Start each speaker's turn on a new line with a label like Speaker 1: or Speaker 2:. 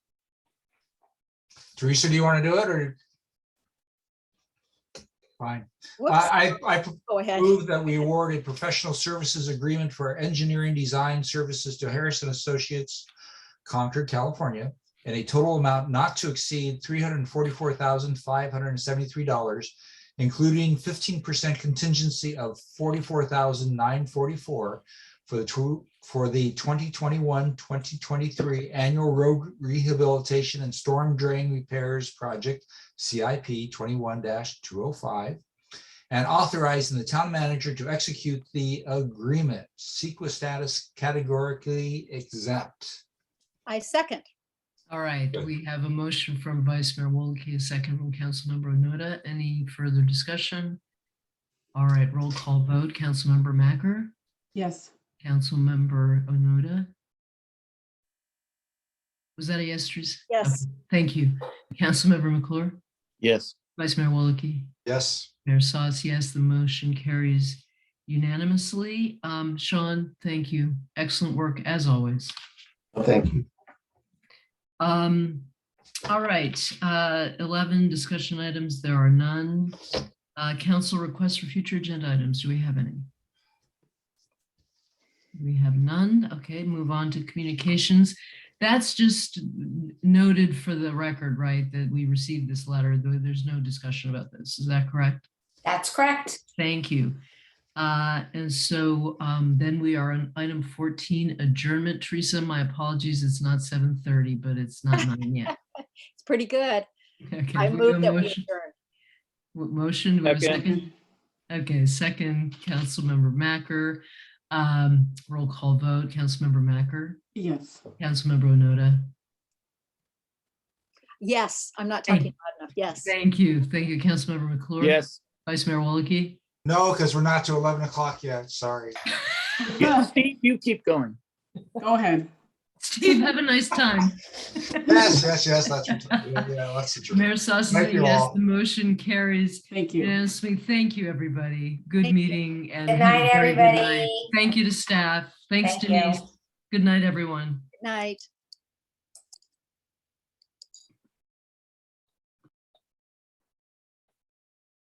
Speaker 1: Teresa, do you want to do it or? Fine.
Speaker 2: Whoops,
Speaker 1: I, I I
Speaker 2: go ahead.
Speaker 1: move that we award a professional services agreement for engineering design services to Harrison Associates, Concord, California, at a total amount not to exceed three hundred and forty-four thousand, five hundred and seventy-three dollars, including fifteen percent contingency of forty-four thousand, nine forty-four for the two, for the 2021-2023 annual road rehabilitation and storm drain repairs project, CIP twenty-one two oh five, and authorizing the town manager to execute the agreement. Sequa status categorically exempt.
Speaker 2: I second.
Speaker 3: All right, we have a motion from Vice Mayor Wolke, a second from Councilmember Onoda. Any further discussion? All right, roll call vote. Councilmember Macker,
Speaker 4: Yes.
Speaker 3: Councilmember Onoda. Was that a yes, Teresa?
Speaker 2: Yes.
Speaker 3: Okay, Thank you. Councilmember McClure,
Speaker 5: yes,
Speaker 3: Vice Mayor Wolke,
Speaker 1: Yes.
Speaker 3: Mayor Sauce, yes, the motion carries unanimously. Um, Sean, thank you. Excellent work as always.
Speaker 6: Thank you.
Speaker 3: Um, all right, uh, eleven discussion items, there are none. Uh, council requests for future agenda items, do we have any? We have none, okay, move on to communications. That's just noted for the record, right, that we received this letter, though there's no discussion about this, is that correct?
Speaker 7: That's correct.
Speaker 3: Thank you. Uh, And so um, then we are on item 14, adjournment. Teresa, my apologies, it's not 7:30, but it's not nine yet.
Speaker 2: It's pretty good.
Speaker 3: Okay,
Speaker 2: I
Speaker 3: we
Speaker 2: move
Speaker 3: have
Speaker 2: that we
Speaker 3: motion-
Speaker 2: adjourn.
Speaker 3: w- Motion, do we have a
Speaker 5: Second.
Speaker 3: second? Okay, second, Councilmember Macker. Um, Roll call vote, Councilmember Macker,
Speaker 4: Yes.
Speaker 3: Councilmember Onoda.
Speaker 2: Yes, I'm not
Speaker 3: Thank
Speaker 2: talking loud enough. Yes.
Speaker 3: Thank you, thank you, Councilmember McClure.
Speaker 5: yes.
Speaker 3: Vice Mayor Walke.
Speaker 1: No, because we're not to eleven o'clock yet. Sorry.
Speaker 4: Go
Speaker 5: Steve, you keep going.
Speaker 4: ahead.
Speaker 3: Steve, have a nice time.
Speaker 1: Yes, yes, yes, that's, yeah, yeah, that's the truth.
Speaker 3: Mayor Sauce,
Speaker 1: Thank you
Speaker 3: yes,
Speaker 1: all.
Speaker 3: the motion carries.
Speaker 4: Thank you.
Speaker 3: Yes, we thank you, everybody. Good
Speaker 2: Thank you.
Speaker 3: meeting and.
Speaker 7: Good
Speaker 3: have a
Speaker 7: night,
Speaker 3: very good night.
Speaker 7: everybody.
Speaker 3: Thank you to staff. Thanks
Speaker 7: Thank you.
Speaker 3: Denise. Good night, everyone.
Speaker 2: Good night.